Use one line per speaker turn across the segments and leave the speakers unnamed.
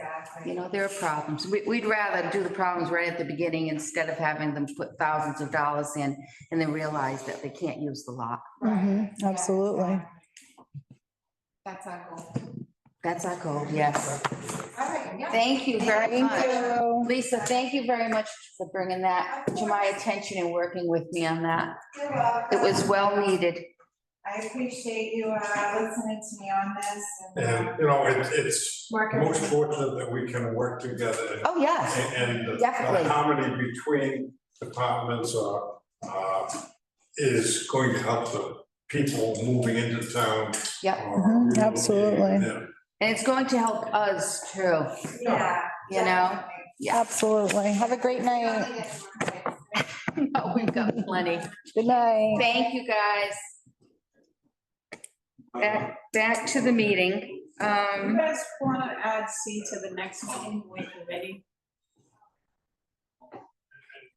Exactly.
You know, there are problems. We, we'd rather do the problems right at the beginning instead of having them put thousands of dollars in and then realize that they can't use the lot.
Mm-hmm.
Right.
Mhm, Absolutely.
That's our goal.
That's our goal, yes.
All right, yeah.
Thank you very
Thank
much.
So,
Lisa, thank you very much for bringing that to my attention and working with me on that.
You're welcome.
It was well needed.
I appreciate you, uh, listening to me on this and. uh,
And, you know, it's, it's
Working.
most fortunate that we can work together
Oh, yes,
and the-
Definitely.
the harmony between departments uh, uh, is going to help the people moving into town.
Yep.
or
Mhm,
relocating
absolutely.
there.
and it's going to help us too,
Yeah.
you know? Yeah,
absolutely. Have a great night.
definitely.
No, Oh, we've got plenty.
Good night.
Thank you, guys. Back, back to the meeting.
You
Um,
guys wanna add C to the next meeting with the committee?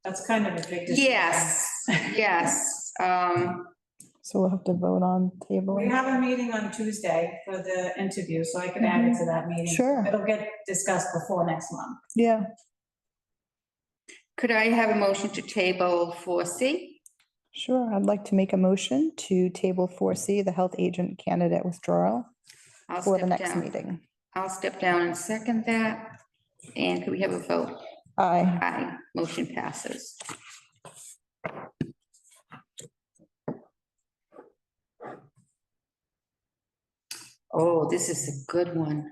That's kind of a big. decision.
yes, yes. Um,
So we'll have to vote on table.
We have a meeting on Tuesday for the interview, so I can add it to that meeting.
Sure.
It'll get discussed before next month.
Yeah,
could I have a motion to table four C?
sure. I'd like to make a motion to table four C, the health agent candidate withdrawal
I'll
for the
step
next
down.
meeting.
I'll step down and second that. And could we have a vote?
Aye.
Aye, motion passes. Oh, this is a good one.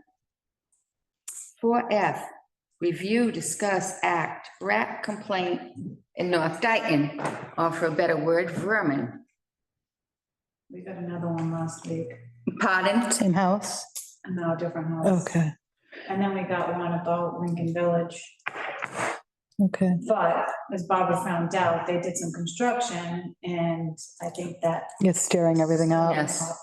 Four F, review, discuss, act, rat complaint in North Dayton, or for a better word, vermin.
We got another one last week,
Pardon?
Same house.
and now a different house.
Okay,
And then we got one about Lincoln Village.
okay.
But as Barbara found out, they did some construction, and I think that.
It's stirring everything up.
Yes.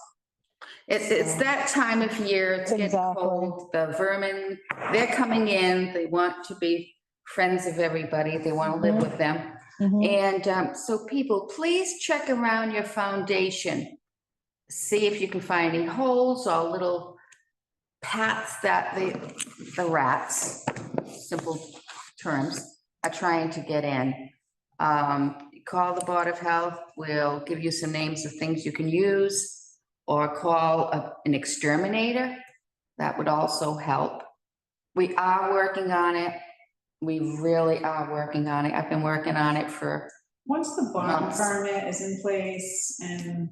It's, it's that time of year, it's getting
Exactly.
cold, the vermin, they're coming in, they want to be friends of everybody, they want to live with them.
Mhm.
And um, so people, please check around your foundation. See if you can find any holes or little pats that the, the rats, simple terms, are trying to get in. Um, Call the Board of Health, we'll give you some names of things you can use, or call a- an exterminator. That would also help. We are working on it. We really are working on it. I've been working on it for,
Once the bond
Months.
permit is in place and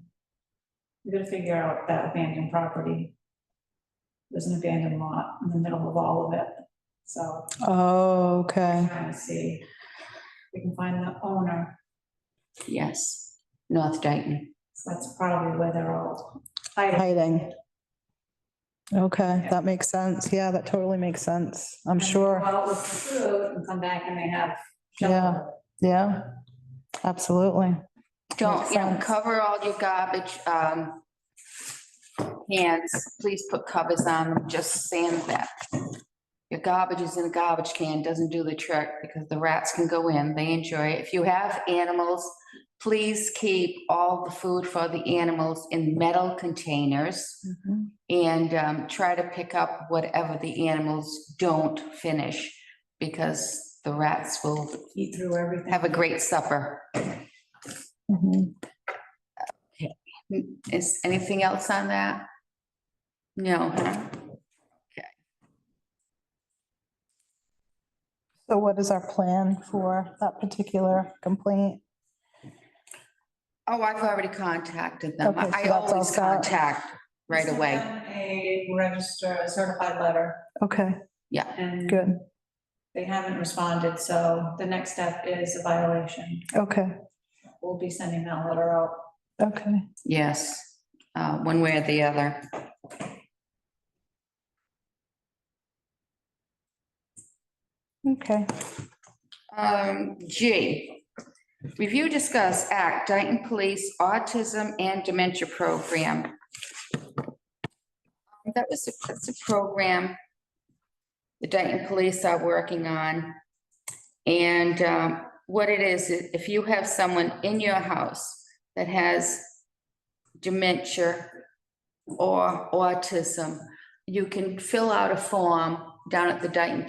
we are going to figure out that abandoned property. There's an abandoned lot in the middle of all of it, so
Oh, okay.
trying to see if we can find the owner.
yes, North Dayton.
So that's probably where they're all hiding.
Hiding. Okay,
Yeah.
that makes sense. Yeah, that totally makes sense. I'm sure.
Go out with the food and come back and they have
Yeah.
shelter.
Yeah, absolutely.
Don't,
Makes
you know,
sense.
cover all your garbage, um, cans. Please put covers on them, just sand that. Your garbage is in a garbage can, doesn't do the trick because the rats can go in, they enjoy it. If you have animals, please keep all the food for the animals in metal containers.
Mhm.
and um, try to pick up whatever the animals don't finish because the rats will
Eat through everything.
have a great supper.
Mhm.
Is anything else on that? No, huh?
So what is our plan for that particular complaint?
Oh, I've already contacted them.
Okay, so
I
that's all
always
set.
contact right
Send
away.
them A register, a certified letter
Okay,
and
good.
they haven't responded, so the next step is a violation.
Okay,
We'll be sending that letter out.
okay.
Yes, uh, one way or the other.
Okay,
Um, G, review, discuss, act, Dayton Police Autism and Dementia Program. Um, That was, a- that's a program the Dayton Police are working on. And, um, what it is, i- if you have someone in your house that has dementia or autism, you can fill out a form down at the Dayton